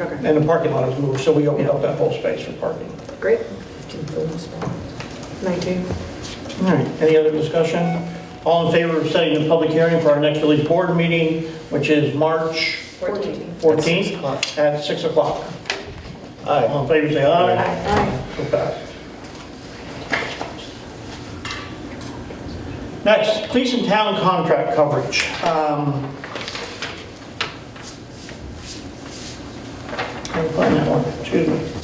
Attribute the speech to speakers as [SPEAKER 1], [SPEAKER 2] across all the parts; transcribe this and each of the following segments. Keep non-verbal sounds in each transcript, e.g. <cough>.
[SPEAKER 1] Okay,
[SPEAKER 2] And the parking lot is moved, so we opened up that whole space for parking.
[SPEAKER 1] great.
[SPEAKER 3] 19.
[SPEAKER 2] All right, any other discussion? All in favor of setting a public hearing for our next village board meeting, which is March
[SPEAKER 1] 14.
[SPEAKER 2] 14th at 6 o'clock? All in favor, say aye. So passed. Next, police and town contract coverage. Um, Can't find that one, excuse me.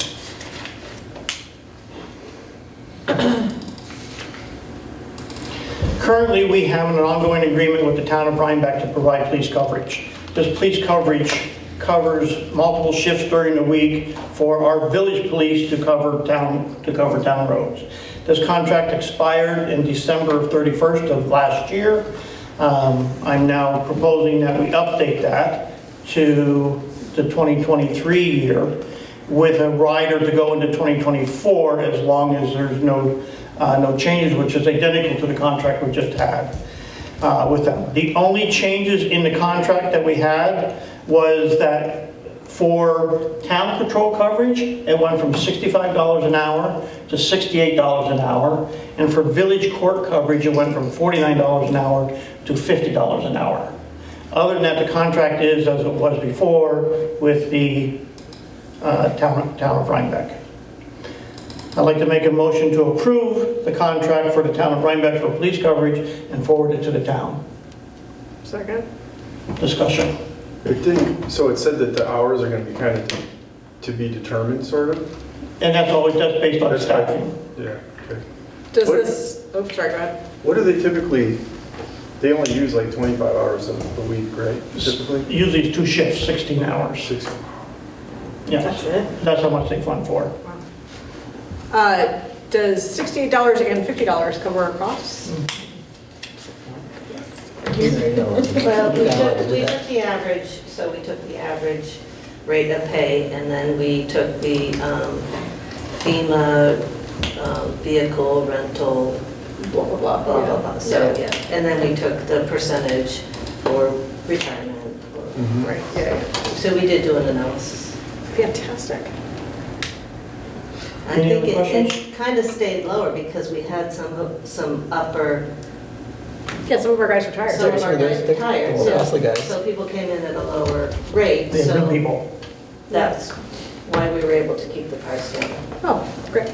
[SPEAKER 2] Currently, we have an ongoing agreement with the town of Rhinebeck to provide police coverage. This police coverage covers multiple shifts during the week for our village police to cover town, to cover town roads. This contract expired in December of 31st of last year. Um, I'm now proposing that we update that to the 2023 year with a rider to go into 2024 as long as there's no, uh, no changes, which is identical to the contract we just had uh, with them. The only changes in the contract that we had was that for town patrol coverage, it went from $65 an hour to $68 an hour. And for village court coverage, it went from $49 an hour to $50 an hour. Other than that, the contract is as it was before with the uh, town town of Rhinebeck. I'd like to make a motion to approve the contract for the town of Rhinebeck for police coverage and forward it to the town.
[SPEAKER 1] Second?
[SPEAKER 2] Discussion.
[SPEAKER 4] I think, so it said that the hours are gonna be kind of to be determined, sort of?
[SPEAKER 2] And that's always, that's based on
[SPEAKER 4] That's
[SPEAKER 2] staffing.
[SPEAKER 4] Yeah, okay.
[SPEAKER 1] Does
[SPEAKER 4] What-
[SPEAKER 1] this, oh, sorry, go ahead.
[SPEAKER 4] What do they typically, they only use like 25 hours a a week, right, typically?
[SPEAKER 2] Usually it's two shifts, 16 hours.
[SPEAKER 4] Six.
[SPEAKER 2] Yes,
[SPEAKER 1] it?
[SPEAKER 2] that's how much they fund for.
[SPEAKER 1] Uh, does sixty-eight dollars and fifty dollars cover our costs?
[SPEAKER 5] Well, we took, we took the average, so we took the average rate of pay, and then we took the um, FEMA um, vehicle rental,
[SPEAKER 1] Blah, blah, blah.
[SPEAKER 5] blah, blah, blah, blah. So,
[SPEAKER 1] Yeah.
[SPEAKER 5] yeah, and then we took the percentage for retirement. or-
[SPEAKER 2] Mm-hmm.
[SPEAKER 1] Right, yeah, yeah.
[SPEAKER 5] So we did do an analysis.
[SPEAKER 1] Fantastic.
[SPEAKER 5] I
[SPEAKER 2] Any other
[SPEAKER 5] think it-
[SPEAKER 2] questions?
[SPEAKER 5] it kind of stayed lower because we had some, some upper
[SPEAKER 1] Yeah, some of our guys retired.
[SPEAKER 5] Some of
[SPEAKER 6] Seriously,
[SPEAKER 5] our guys
[SPEAKER 6] there's- there's
[SPEAKER 5] retired,
[SPEAKER 6] people,
[SPEAKER 5] so,
[SPEAKER 6] mostly guys.
[SPEAKER 5] so people came in at a lower rate,
[SPEAKER 2] They have new
[SPEAKER 5] so
[SPEAKER 2] people.
[SPEAKER 5] that's why we were able to keep the price down.
[SPEAKER 1] Oh, great.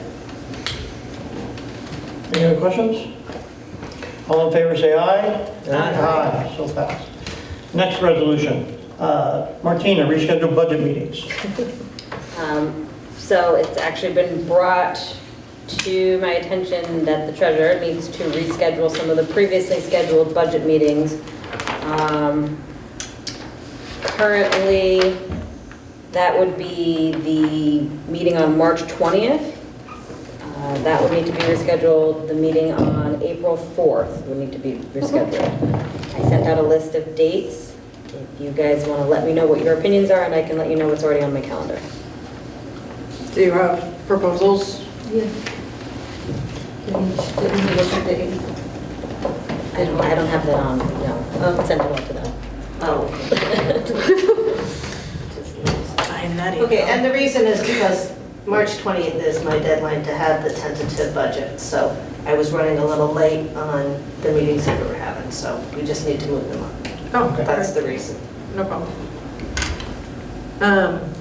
[SPEAKER 2] Any other questions? All in favor, say aye.
[SPEAKER 6] Aye.
[SPEAKER 2] Aye, so passed. Next resolution. Uh, Martina, reschedule budget meetings.
[SPEAKER 7] Um, So it's actually been brought to my attention that the treasurer needs to reschedule some of the previously scheduled budget meetings. Um, Currently, that would be the meeting on March 20th. Uh, That would need to be rescheduled. The meeting on April 4th would need to be rescheduled. I sent out a list of dates. If you guys want to let me know what your opinions are, and I can let you know what's already on my calendar.
[SPEAKER 1] Do you have proposals?
[SPEAKER 7] I don't, I don't have that on, no. I'll send it out to them.
[SPEAKER 5] <laughs> Oh. Okay, and the reason is because March 20th is my deadline to have the tentative budget, so I was running a little late on the meetings that we were having, so we just need to move them up.
[SPEAKER 1] Oh,
[SPEAKER 5] That's
[SPEAKER 1] okay,
[SPEAKER 5] the reason.
[SPEAKER 1] no problem. Um,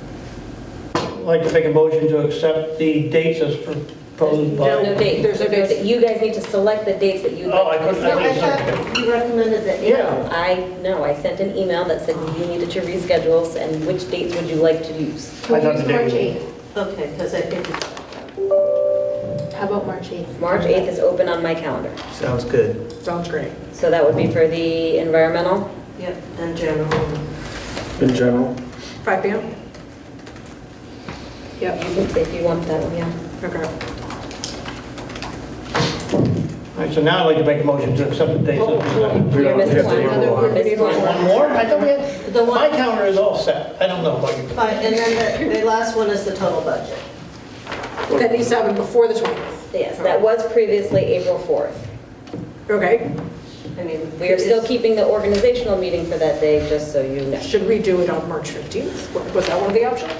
[SPEAKER 2] I'd like to make a motion to accept the dates as proposed by...
[SPEAKER 1] No,
[SPEAKER 7] No dates.
[SPEAKER 1] There's no dates.
[SPEAKER 7] You guys need to select the dates that you.
[SPEAKER 2] Oh, I couldn't-
[SPEAKER 5] No, I
[SPEAKER 2] think so.
[SPEAKER 5] thought you recommended that.
[SPEAKER 2] Yeah.
[SPEAKER 7] I, no, I sent an email that said you needed to reschedule and which dates would you like to use?
[SPEAKER 2] I thought the date was-
[SPEAKER 5] Okay, because I think it's.
[SPEAKER 8] How about March 8th?
[SPEAKER 7] March 8th is open on my calendar.
[SPEAKER 6] Sounds good.
[SPEAKER 1] sounds great.
[SPEAKER 7] So that would be for the environmental.
[SPEAKER 5] Yep, in general.
[SPEAKER 4] In general?
[SPEAKER 1] 5 PM? Yep,
[SPEAKER 7] If you want that one, yeah.
[SPEAKER 1] okay.
[SPEAKER 2] All right, so now I'd like to make a motion to accept the dates as presented.
[SPEAKER 4] We
[SPEAKER 7] You're
[SPEAKER 4] don't
[SPEAKER 7] missing
[SPEAKER 4] have
[SPEAKER 7] one.
[SPEAKER 4] to
[SPEAKER 1] Another
[SPEAKER 4] go
[SPEAKER 1] one.
[SPEAKER 4] on.
[SPEAKER 7] Missing
[SPEAKER 2] One more? I thought we had,
[SPEAKER 5] The
[SPEAKER 2] my
[SPEAKER 5] one-
[SPEAKER 2] calendar is all set. I don't know about you.
[SPEAKER 5] Fine, and then the, the last one is the total budget.
[SPEAKER 1] That needs to happen before the 20th.
[SPEAKER 7] Yes, that was previously April 4th.
[SPEAKER 1] Okay,
[SPEAKER 5] I mean,
[SPEAKER 7] We are still keeping the organizational meeting for that day, just so you know.
[SPEAKER 1] should we do it on March 15th? Was that one of the options?